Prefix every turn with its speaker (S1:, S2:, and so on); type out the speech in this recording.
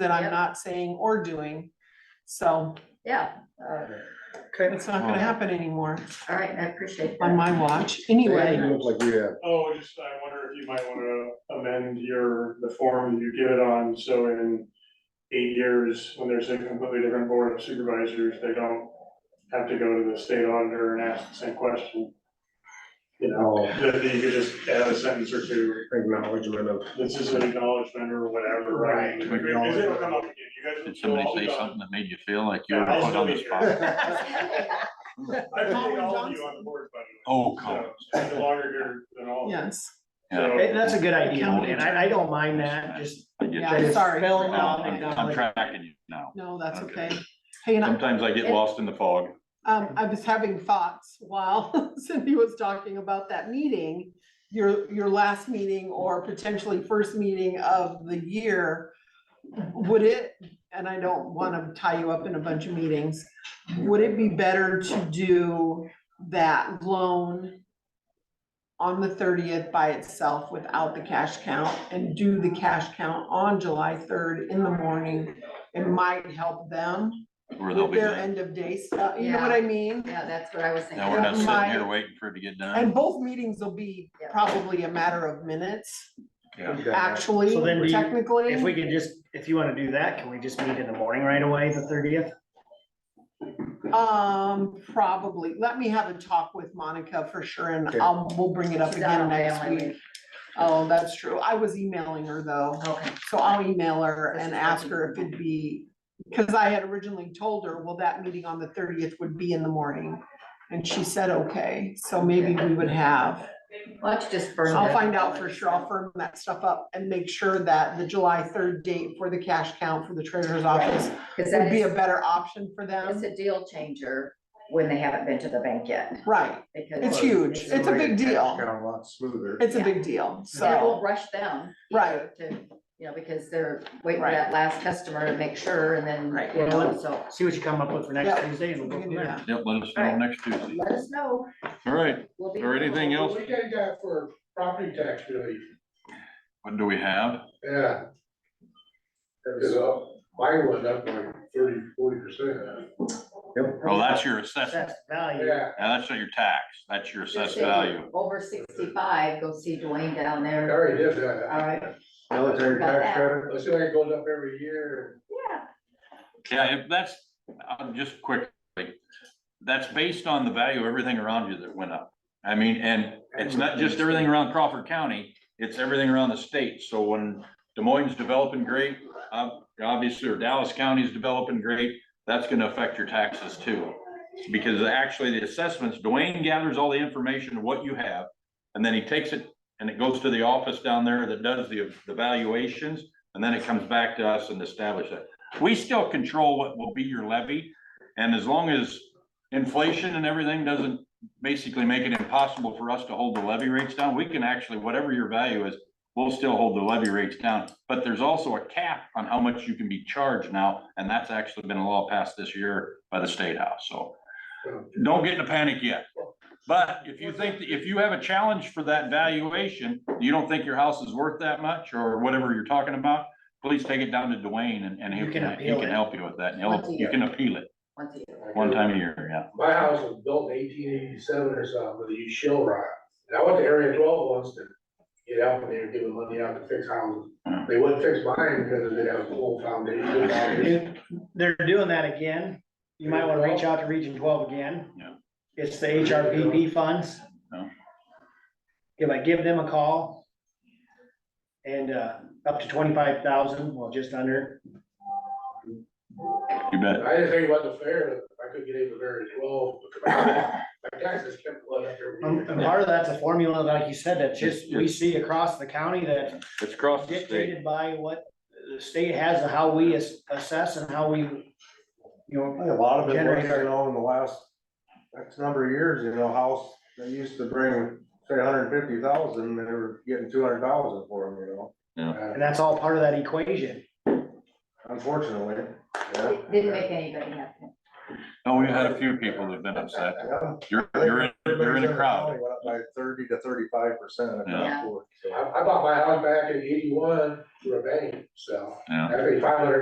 S1: that
S2: Yep.
S1: I'm not saying or doing. So
S2: Yeah, uh,
S3: Okay.
S1: it's not gonna happen anymore
S2: all right, I appreciate
S1: on
S2: that.
S1: my watch anyway.
S3: It looks like we have,
S4: Oh, just, I wonder if you might wanna amend your, the form you give it on, so in eight years, when there's a completely different board of supervisors, they don't have to go to the state auditor and ask the same question. You know, that you could just add a sentence or two,
S3: acknowledgement of,
S4: this is an acknowledgement or whatever, right?
S3: Right.
S4: Because it'll come up again, you guys will
S5: Did
S4: still
S5: somebody
S4: all be
S5: say
S4: gone.
S5: something that made you feel like you
S4: Yeah,
S5: were
S4: I'll
S5: put
S4: still
S5: on
S4: be
S5: the
S4: here.
S5: spot?
S4: I
S1: Colin
S4: think all of you
S1: Johnson.
S4: on the board, by the way.
S5: Oh, come.
S4: So, it's Longer here than all of you.
S1: Yes,
S5: Yeah.
S3: Hey, that's a good idea,
S1: Yeah.
S3: and I, I don't mind that, just.
S5: I get
S1: yeah,
S5: that.
S1: I'm sorry. Oh,
S3: Spell it
S5: No,
S3: out.
S5: I'm I'm tracking you now.
S1: No, that's
S5: Okay.
S1: okay. Hey, and I,
S5: Sometimes I get lost in the fog.
S1: um, I was having thoughts while Cindy was talking about that meeting. Your, your last meeting or potentially first meeting of the year. Would it, and I don't wanna tie you up in a bunch of meetings, would it be better to do that loan on the thirtieth by itself without the cash count and do the cash count on July third in the morning? It might help them
S5: Where they'll
S1: with
S5: be
S1: their
S5: done.
S1: end of day stuff, you know what I mean?
S2: Yeah, that's what I was
S5: Now we're not
S2: thinking.
S5: sitting
S1: My-
S5: here waiting for it to get
S1: And
S5: done.
S1: both meetings will be
S2: Yeah.
S1: probably a matter of minutes,
S5: Yeah.
S1: actually,
S3: So then do you-
S1: technically.
S3: If we could just, if you wanna do that, can we just meet in the morning right away, the thirtieth?
S1: Um, probably, let me have a talk with Monica for sure, and
S3: Okay.
S1: I'll, we'll bring it up
S2: She's out
S1: again
S2: on
S1: next
S2: family
S1: week.
S2: leave.
S1: Oh, that's true, I was emailing her though,
S2: Okay,
S1: so I'll email her
S2: This
S1: and
S2: is
S1: ask
S2: awesome.
S1: her if it'd be, because I had originally told her, well, that meeting on the thirtieth would be in the morning. And she said, okay, so maybe we would have.
S2: why don't you just burn
S1: I'll
S2: that
S1: find out
S2: one?
S1: for sure. I'll firm that stuff up and make sure that the July third date for the cash count for the treasurer's office would
S2: Cause that
S1: be
S2: is,
S1: a better option for
S2: it's
S1: them.
S2: a deal changer when they haven't been to the bank yet,
S1: Right.
S2: because.
S1: It's huge. It's a big deal.
S3: Got a lot smoother.
S1: It's a
S2: Yeah.
S1: big deal.
S2: And it won't
S1: So,
S2: rush them.
S1: Right.
S2: To, you know, because they're waiting for
S1: Right.
S2: that last customer to make sure and then,
S1: Right.
S2: you know, so
S3: See what you come up with for next
S1: Yeah.
S3: Tuesday and
S1: we
S3: we'll go
S1: can do
S3: from there.
S1: that.
S5: Yep, let us know
S2: Alright.
S5: next Tuesday.
S2: let us know.
S5: All right,
S2: We'll be
S5: or anything else?
S6: What do you guys got for property tax relief?
S5: What do we have?
S6: Yeah. Cause uh, mine went up like thirty, forty percent.
S5: Oh, that's your assessment.
S3: That's value.
S6: Yeah,
S5: Now, that's not your tax. That's your
S2: Just
S5: assessed
S2: say
S5: value.
S2: Over sixty-five, go see Dwayne down
S6: I
S2: there.
S6: already did
S2: All
S6: that.
S2: right,
S3: Military
S2: tax About that.
S3: credit.
S6: Let's see, it goes up every year.
S2: yeah,
S5: Yeah, if that's, uh, just quickly, that's based on the value of everything around you that went up. I mean, and it's not just everything around Crawford County, it's everything around the state. So when Des Moines is developing great, ob- obviously, or Dallas County is developing great, that's gonna affect your taxes too. Because actually, the assessments, Dwayne gathers all the information of what you have, and then he takes it and it goes to the office down there that does the, the valuations, and then it comes back to us and establish that. We still control what will be your levy, and as long as inflation and everything doesn't basically make it impossible for us to hold the levy rates down, we can actually, whatever your value is, we'll still hold the levy rates down, but there's also a cap on how much you can be charged now, and that's actually been a law passed this year by the State House, so don't get in a panic yet. But if you think, if you have a challenge for that valuation, you don't think your house is worth that much, or whatever you're talking about, please take it down to Dwayne and, and he
S3: You can
S5: can, he
S3: appeal
S5: can
S3: it.
S5: help you with that, and he'll, you can appeal it
S2: once a year.
S5: one time a year, yeah.
S6: My house was built in eighteen eighty-seven or something with a huge shell rock. And I went to Area twelve once to get out and they were giving money out to fix houses. They wouldn't fix mine because it had a whole foundation.
S3: They're doing that again. You might wanna reach out to Region twelve again.
S5: Yeah.
S3: It's the HRPP funds.
S5: Yeah.
S3: If I give them a call and, uh, up to twenty-five thousand, well, just under,
S5: You bet.
S6: I didn't think it wasn't fair, but I couldn't get into Area twelve. My taxes kept going up every
S3: and
S6: year.
S3: Um, and part of that's a formula, like you said, that just, we see across the county that
S5: It's across the state.
S3: dictated by what the state has and how we as- assess and how we, you know,
S7: A lot of it was,
S3: Generate our-
S7: you know, in the last, X number of years, you know, house, they used to bring, say, hundred and fifty thousand, they were getting two hundred thousand for them, you know,
S3: and that's all part of that equation.
S7: unfortunately, yeah.
S2: It Didn't make anybody happy.
S5: No, Oh, we've had a few people that've been upset.
S7: Yeah.
S5: You're, you're, in- you're in a crowd.
S7: Went up By thirty to thirty-five percent.
S2: Yeah.
S6: I, I bought my house back in eighty-one through a bank, so
S5: Yeah.
S6: I paid five hundred